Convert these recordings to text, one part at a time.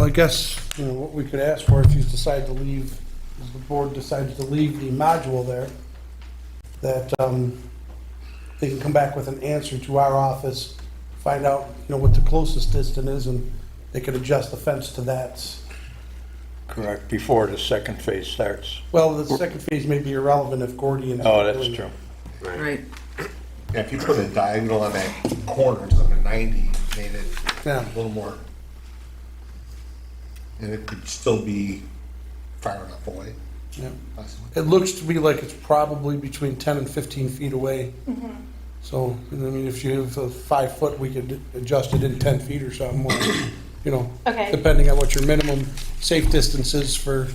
I guess, you know, what we could ask for if you decide to leave, if the board decides to leave the module there, that um, they can come back with an answer to our office, find out, you know, what the closest distance is, and they could adjust the fence to that. Correct, before the second phase starts. Well, the second phase may be irrelevant if Gordian's. Oh, that's true. Right. If you put a diagonal on that corner, it's like a ninety, made it Yeah. a little more. And it could still be far enough away, true. possibly. It looks to me like it's probably between 10 and 15 feet away. Mm-hmm. So, I mean, if you have a five foot, we could adjust it in 10 feet or something, or, you know, Okay. depending on what your minimum safe distance is for,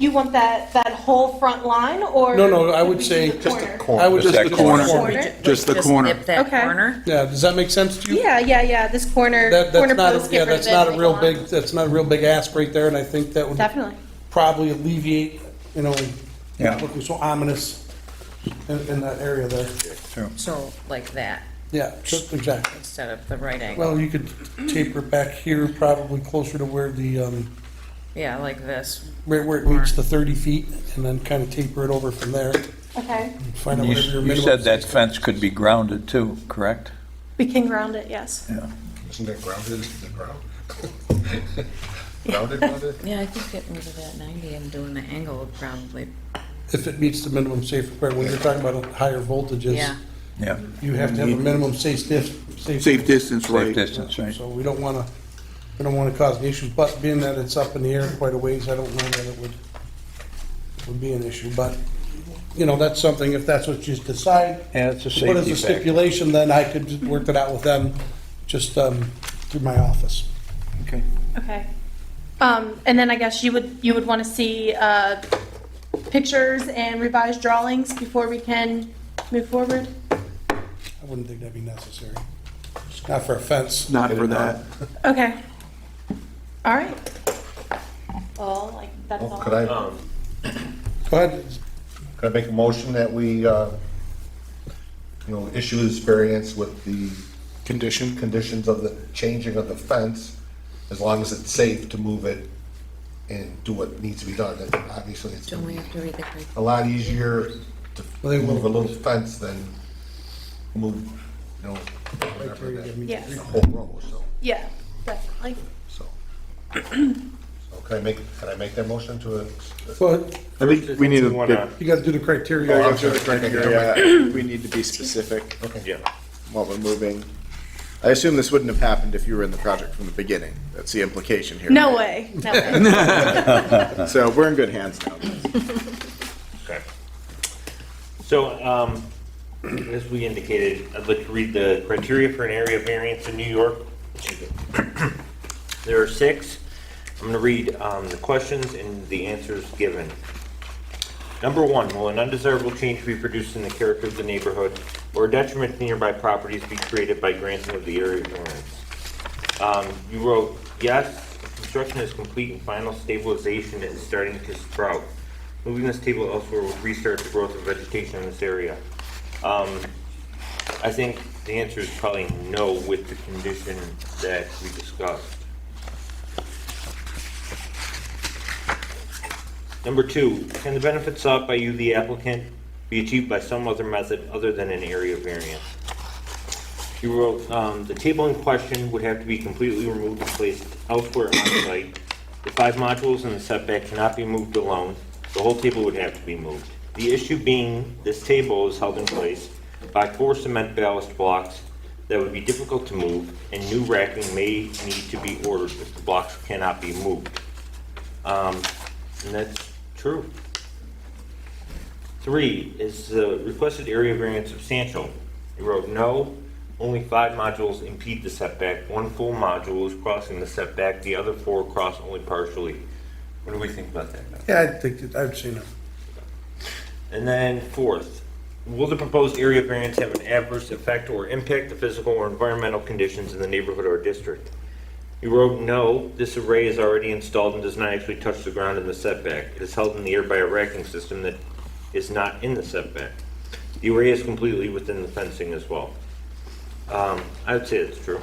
You want that, that whole front line, or? No, no, I could would we do say- the Just Just a corner? corner. I would Just just. that the corner. Corner? Just the corner. Nip that Okay. corner. Yeah, does that make sense to you? Yeah, yeah, yeah, this corner, That, corner that's not, post, a- yeah, get rid that's of it, not a make real lawn. big, that's not a real big ask right there, and I think that would Definitely. probably alleviate, you know, Yeah. looking so ominous in, in that area there. True. So like that Yeah, just- exactly. instead of the right angle. Well, you could taper it back here, probably closer to where the, um, Yeah, like this. where, where it meets the thirty feet, and then kind of taper it over from there. Okay, and Find out You whatever your you minimum. said that fence could be grounded too, correct? we can ground it, yes. Yeah. Isn't that grounded, is it ground? Grounded, grounded? Yeah, I think getting rid of that ninety and doing the angle would probably, If it meets the minimum safe requirement, when you're talking about higher voltages, yeah. Yeah, you have to have a minimum safe dif, safe. Safe distance, safe right? distance, right? So we don't wanna, we don't wanna cause an issue, but being that it's up in the air quite a ways, I don't know that it would, would be an issue, but, you know, that's something, if that's what you decide, Yeah, it's a What is safety the factor. stipulation, then I could just work it out with them, just um, through my office. Okay. Okay. Um, and then I guess you would, you would want to see, uh, pictures and revised drawings before we can move forward? I wouldn't think that'd be necessary. Not for a fence. Not for that. Okay. All right. Well, like, that's Well, all. Oh, Could I, Go ahead. could I make a motion that we, uh, you know, issue this variance with the Condition? conditions of the changing of the fence, as long as it's safe to move it and do what needs to be done. And Obviously, it's Don't gonna we be have to read the grade? a lot easier Well, they to will- move a little fence than move, you know, whatever that, Yes, the whole row, so, yeah, definitely. so. So Can I make, can I make that motion to? Well, I think we need to get, you gotta do the criteria. Oh, I'm sorry. Yeah, we need to be specific while we're moving. I assume this wouldn't have happened if you were in the project from the beginning. That's the implication here. No way, no way. So we're in good hands now. Okay. So, um, as we indicated, I'd like to read the criteria for an area variance in New York. Excuse me. There are six. I'm going to read um, the questions and the answers given. Number one, will an undesirable change be produced in the character of the neighborhood or detriment to nearby properties be created by granting of the area variance? Um, you wrote, yes, construction is complete and final stabilization is starting to sprout. Moving this table elsewhere will restart the growth of vegetation in this area. Um, I think the answer is probably no with the condition that we discussed. Number two, can the benefits sought by you, the applicant, be achieved by some other method other than an area variance? You wrote, um, the table in question would have to be completely removed and placed elsewhere on site. The five modules in the setback cannot be moved alone. The whole table would have to be moved. The issue being, this table is held in place by four cement ballast blocks that would be difficult to move, and new racking may need to be ordered if the blocks cannot be moved. Um, and that's true. Three, is the requested area variance substantial? You wrote, no, only five modules impede the setback, one full module is crossing the setback, the other four cross only partially. What do we think about that? Yeah, I think, that- I've seen it. And then fourth, will the proposed area variance have an adverse effect or impact the physical or environmental conditions in the neighborhood or district? You wrote, no, this array is already installed and does not actually touch the ground in the setback. It is held in the air by a racking system that is not in the setback. The array is completely within the fencing as well. Um, I would say it's true.